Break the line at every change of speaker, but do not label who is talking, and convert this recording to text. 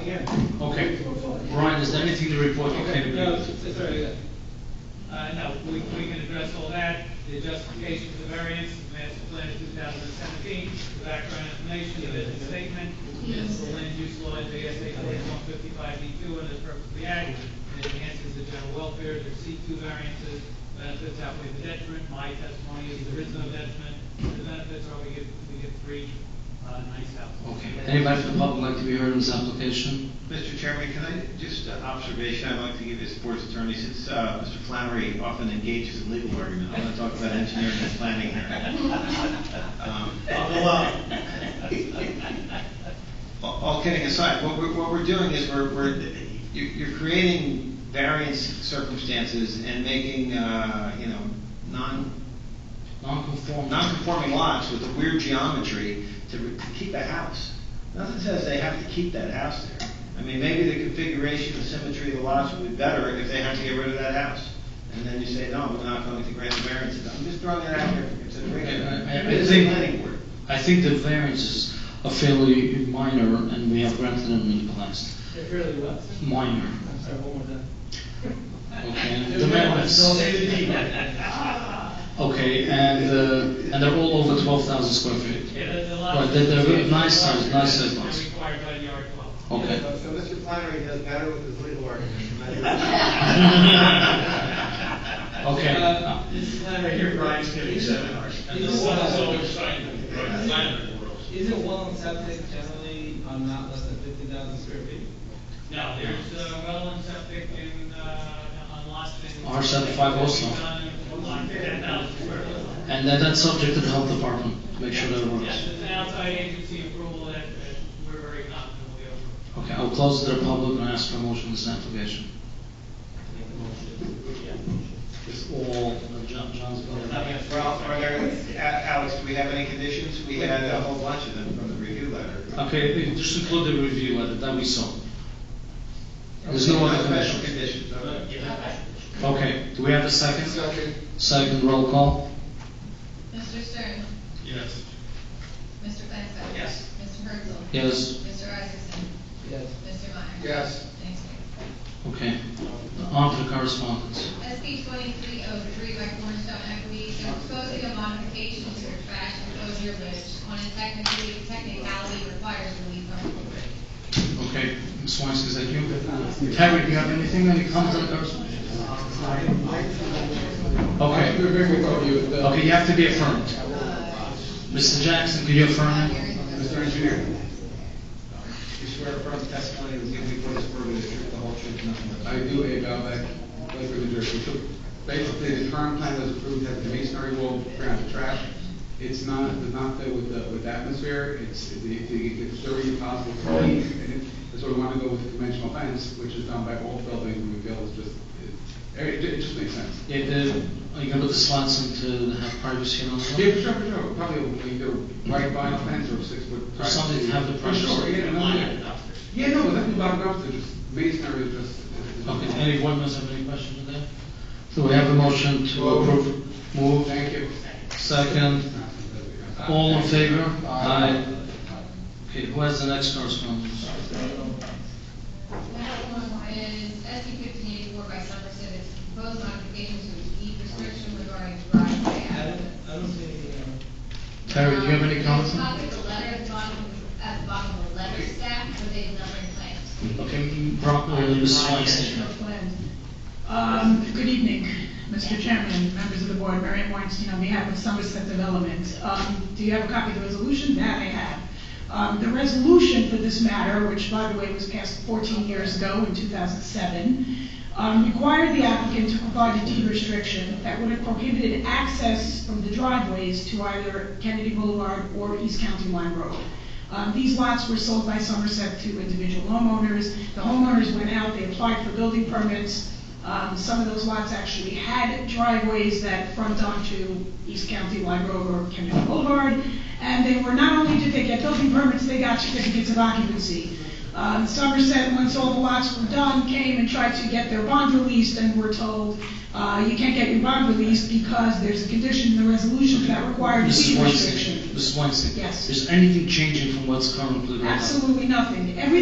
again.
Okay,
We're fine.
Brian, is there anything to report you
Okay,
came
no,
in?
it's, it's very good. Uh, no, we, we can address all that, the justification for the variance, the master plan two thousand and seventeen, the background information, the business statement, the land use law, the ASA forty-one fifty-five D two, and the purpose of the act, it enhances the general welfare, the C two variances, benefits outweigh the detriment, my testimony is there is no detriment, the benefits are we get, we get three, uh, nice houses.
Okay, anybody from the public like to be heard on this application?
Mr. Chairman, can I, just an observation I'd like to give the sports attorney, since uh, Mr. Flannery often engages in legal argument, I want to talk about engineering and planning here. Um, Although, uh, all- all kidding aside, what we're, what we're doing is we're, we're, you're you're creating variance circumstances and making, uh, you know, non,
Non-conforming.
non-conforming lots with a weird geometry to, to keep a house. Nothing says they have to keep that house there. I mean, maybe the configuration, the symmetry of the lots would be better if they had to get rid of that house. And then you say, no, we're not going to grant the variance. I'm just throwing that out there for consideration.
I- I- I
It's a
think-
planning board.
I think the variances are fairly minor, and we have granted them in the past.
It really was.
Minor,
I'm sorry, one more time.
okay? The variance. Okay, and, uh, and they're all over twelve thousand square feet.
Yeah, the- the lot-
Right, they're, they're nice size, nice size
They're
lots.
Required by the article.
Okay.
So so Mr. Flannery does better with his legal argument.
Okay.
Uh, This is Larry here, Brian.
giving seminars. And the
Is,
one is
uh,
always signed, right, signed for us.
Is it well accepted generally on not less than fifty thousand square feet?
No, there's uh, well and septic in, uh, on lots of.
R seventy-five also. And that, that's subject to the health department, to make sure that it
Yes,
works.
it's an outside agency approval that, that we're very confident will be over.
Okay, I'll close the public and ask for a motion on this application. It's all, uh, John, John's.
Ralph, are there, A- Alex, do we have any conditions? We had a whole bunch of them from the review letter.
Okay, just include the review letter that we saw. There's no other
Special
condition.
conditions, okay.
Okay, do we have a second? Second. Second roll call?
Mr. Stern?
Yes.
Mr. Flansbrough?
Yes.
Mr. Herzl?
Yes.
Mr. Isaacson?
Yes.
Mr. Meyer?
Yes.
Thank you.
Okay, on to the correspondence.
SB twenty-three oh three by Cornerstone Equity, they're proposing a modification to their trash enclosure, which on a technically, technicality requires relief from corporate.
Okay, Ms. Weinstein, is that you? Terry, do you have anything, any comments on the correspondence? Okay,
Uh,
okay, you have to be affirmed. Mr. Jackson, can you affirm?
Mr. Engineer.
You swear affirm testimony you give before this board is the truth, the whole truth, nothing but the truth.
I do a Valbec, Lake New Jersey. So Basically, the current plan that's approved has the masonry wall ground to trash. It's not, does not fit with the, with the atmosphere, it's, it- it- it's very impossible to clean. And it- That's why we want to go with conventional fence, which is done by all buildings, we feel is just, it, it ju- it just makes sense.
Yeah, the, are you gonna put the slats into, the have privacy and all that?
Yeah, for sure, for sure, probably either white vinyl fence or six foot.
Or something to have the
For sure,
pressure.
yeah, no, yeah. Yeah, no, nothing about dumpster, just masonry is just. is- is-
Okay, any board members have any questions on that? So we have a motion to approve. Move,
Thank you.
second, all in favor? Aye. Okay, who has the next correspondence?
That one is SB fifteen eighty-four by Somerset, it's proposed modification to its deed restriction regarding driveway access.
I don't see uh, anything on
Terry, do you have any
Um,
comments?
there's a copy of the letter at the bottom, at the bottom of the letter stack with a numbering plan.
Okay, Brock, uh, Ms. Weinstein.
Um, Good evening, Mr. Chairman, members of the board, Marian Weinstein on behalf of Somerset Development. Um, Do you have a copy of the resolution? That I have. Um, The resolution for this matter, which by the way was passed 14 years ago in 2007, um, required the applicant to provide a deed restriction that would have prohibited access from the driveways to either Kennedy Boulevard or East County Line Road. Um, These lots were sold by Somerset to individual homeowners. The homeowners went out, they applied for building permits. Um, Some of those lots actually had driveways that front onto East County Line Road or Kennedy Boulevard. And they were, not only did they get building permits, they got certificates of occupancy. Um, Somerset, once all the lots were done, came and tried to get their bond released and were told, uh, you can't get your bond released because there's a condition in the resolution that requires a
Mrs.
deed
Weinstein,
restriction.
Mrs. Weinstein.
Yes.
Is anything changing from what's currently right now?
Absolutely nothing. Every